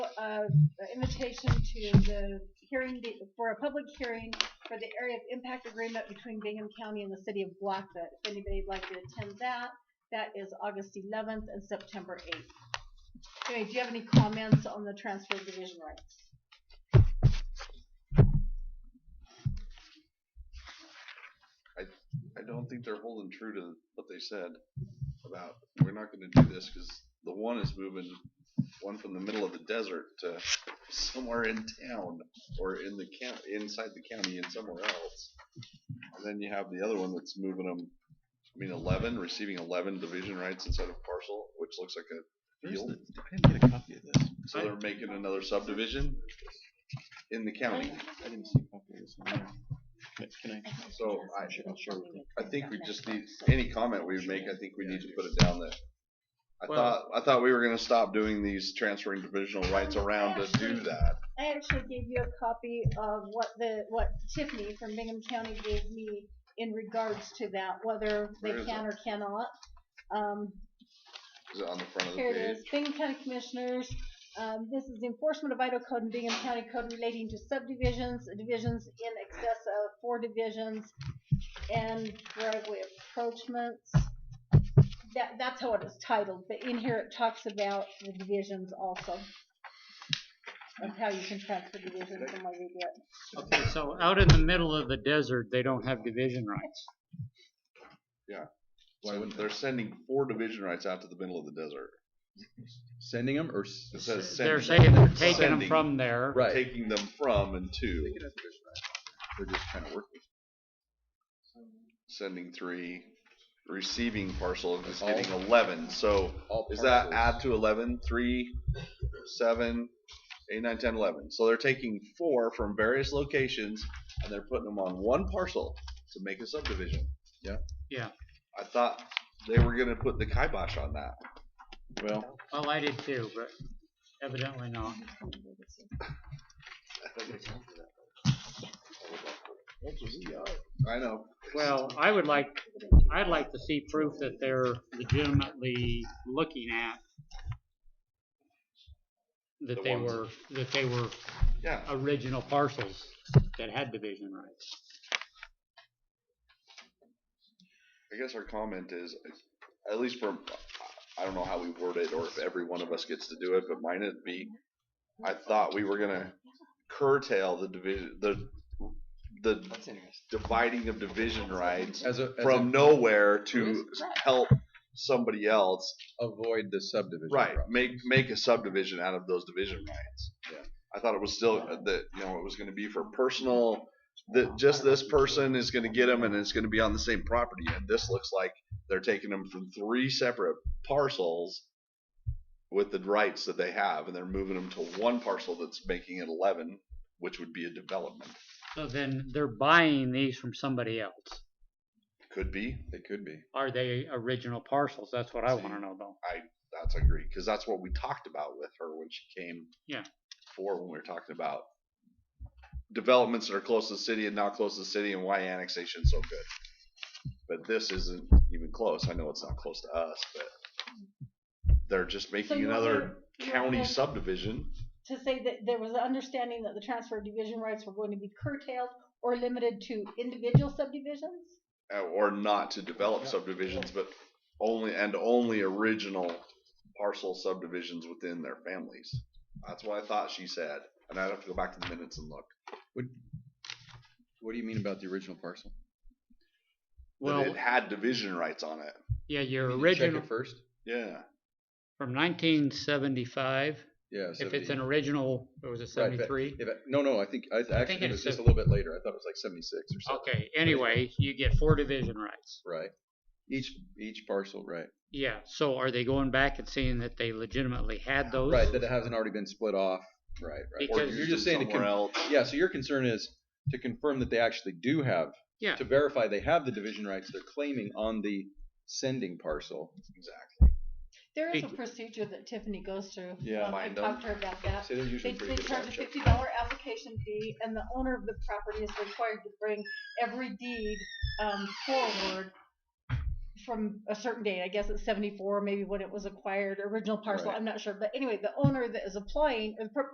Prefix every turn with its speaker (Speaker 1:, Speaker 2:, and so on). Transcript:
Speaker 1: uh, the invitation to the hearing, be- for a public hearing for the area of impact agreement between Bingham County and the city of Blackfoot. If anybody'd like to attend that, that is August eleventh and September eighth. Anyway, do you have any comments on the transfer of division rights?
Speaker 2: I don't think they're holding true to what they said about we're not going to do this because the one is moving one from the middle of the desert to somewhere in town or in the count inside the county and somewhere else. And then you have the other one that's moving them. I mean, eleven receiving eleven division rights instead of parcel, which looks like a
Speaker 3: Where's
Speaker 2: Field.
Speaker 3: the, I didn't get a copy of this.
Speaker 2: so they're making another subdivision in the county.
Speaker 3: I didn't see a copy of this. one. Can- Can I?
Speaker 2: So I, I think we just need, any comment we make, I think we need to put it down there. I
Speaker 4: Well-
Speaker 2: thought, I thought we were gonna stop doing these transferring divisional rights around to do that.
Speaker 1: I actually gave you a copy of what the, what Tiffany from Bingham County gave me in regards to that, whether they
Speaker 2: Where is
Speaker 1: can or cannot. Um,
Speaker 2: Is it on the front of the
Speaker 1: Here it
Speaker 2: page?
Speaker 1: is, Bingham County Commissioners, um, this is the enforcement of Idaho Code and Bingham County Code relating to subdivisions, divisions in excess of four divisions, and driveway approachments. That, that's how it is titled, but in here it talks about the divisions also. Of how you can transfer divisions and what you get.
Speaker 4: Okay, so out in the middle of the desert, they don't have division rights.
Speaker 2: Why wouldn't- They're sending four division rights out to the middle of the desert.
Speaker 3: Sending them or?
Speaker 2: It says
Speaker 4: They're
Speaker 2: sending-
Speaker 4: saying they're taking them
Speaker 2: Sending.
Speaker 4: from there.
Speaker 3: Right.
Speaker 2: Taking them from and to,
Speaker 3: They're just trying to work.
Speaker 2: sending three, receiving parcel, and just
Speaker 3: All-
Speaker 2: getting eleven, so is that add to eleven, three, seven, eight, nine, ten, eleven? So they're taking four from various locations and they're putting them on one parcel to make a subdivision. Yeah.
Speaker 4: Yeah.
Speaker 2: I thought they were gonna put the kibosh on that.
Speaker 3: Well,
Speaker 4: Well, I did too, but evidently not.
Speaker 2: I know.
Speaker 4: Well, I would like, I'd like to see proof that they're legitimately looking at
Speaker 2: The
Speaker 4: that they
Speaker 2: ones-
Speaker 4: were, that they were
Speaker 2: Yeah,
Speaker 4: original parcels that had division rights.
Speaker 2: I guess our comment is, at least from, I don't know how we word it or if every one of us gets to do it, but mine would be, I thought we were gonna curtail the division, the, the
Speaker 3: that's interesting.
Speaker 2: dividing of division rights
Speaker 3: As a, as
Speaker 2: from
Speaker 3: a,
Speaker 2: nowhere to help somebody else.
Speaker 3: avoid the subdivision.
Speaker 2: Right,
Speaker 3: problem.
Speaker 2: make make a subdivision out of those division rights.
Speaker 3: Yeah.
Speaker 2: I thought it was still uh, that you know it was going to be for personal. That just this person is going to get them, and it's going to be on the same property. And this looks like they're taking them from three separate parcels with the rights that they have, and they're moving them to one parcel that's making it eleven, which would be a development.
Speaker 4: So then they're buying these from somebody else.
Speaker 2: Could be.
Speaker 3: They could be.
Speaker 4: Are they original parcels? That's what I wanna know though.
Speaker 2: That's agree because that's what we talked about with her when she came.
Speaker 4: Yeah.
Speaker 2: For when we were talking about developments that are close to the city and not close to the city and why annexation is so good. But this isn't even close. I know it's not close to us, but they're just
Speaker 1: So
Speaker 2: making
Speaker 1: you want
Speaker 2: another
Speaker 1: to- you want
Speaker 2: county
Speaker 1: to-
Speaker 2: subdivision.
Speaker 1: To say that there was an understanding that the transfer of division rights were going to be curtailed or limited to individual subdivisions?
Speaker 2: uh, or not to develop subdivisions, but only and only original parcel subdivisions within their families. That's what I thought she said, and I'd have to go back to the minutes and look.
Speaker 3: What do you mean about the original parcel?
Speaker 2: That
Speaker 4: Well,
Speaker 2: it had division rights on it.
Speaker 4: yeah, your
Speaker 3: You mean to
Speaker 4: original,
Speaker 3: Check it first?
Speaker 2: Yeah,
Speaker 4: from nineteen seventy-five,
Speaker 3: Yeah.
Speaker 4: if it's
Speaker 3: 70.
Speaker 4: an original, it was a
Speaker 3: Right, but
Speaker 4: seventy-three.
Speaker 3: if it- No, no, I think, I th- actually, it
Speaker 4: it's
Speaker 3: was just a
Speaker 4: sev-
Speaker 3: little bit later. I thought it was like seventy-six or something.
Speaker 4: Okay, anyway, you get four division rights.
Speaker 3: Right. Each, each parcel, right.
Speaker 4: Yeah, so are they going back and seeing that they legitimately had those?
Speaker 3: Right, that it hasn't already been split off. Right, right.
Speaker 2: or
Speaker 4: Because-
Speaker 2: used
Speaker 3: You're just
Speaker 2: it
Speaker 3: saying to
Speaker 2: somewhere
Speaker 3: con-
Speaker 2: else.
Speaker 3: Yeah, so your concern is to confirm that they actually do have,
Speaker 4: Yeah.
Speaker 3: to verify they have the division rights they're claiming on the sending parcel.
Speaker 2: Exactly.
Speaker 1: There is a
Speaker 4: Big-
Speaker 1: procedure that Tiffany goes through.
Speaker 3: Yeah.
Speaker 1: Um, I
Speaker 2: Find
Speaker 1: talked to her about that.
Speaker 3: So they're
Speaker 1: They,
Speaker 3: usually
Speaker 1: they
Speaker 3: pretty good.
Speaker 1: charge
Speaker 3: about
Speaker 1: a
Speaker 3: checking.
Speaker 1: fifty dollar application fee, and the owner of the property is required to bring every deed, um, forward from a certain date, I guess it's seventy-four, maybe when it was acquired, original parcel,
Speaker 3: Right.
Speaker 1: I'm not sure, but anyway, the owner that is applying, or the per-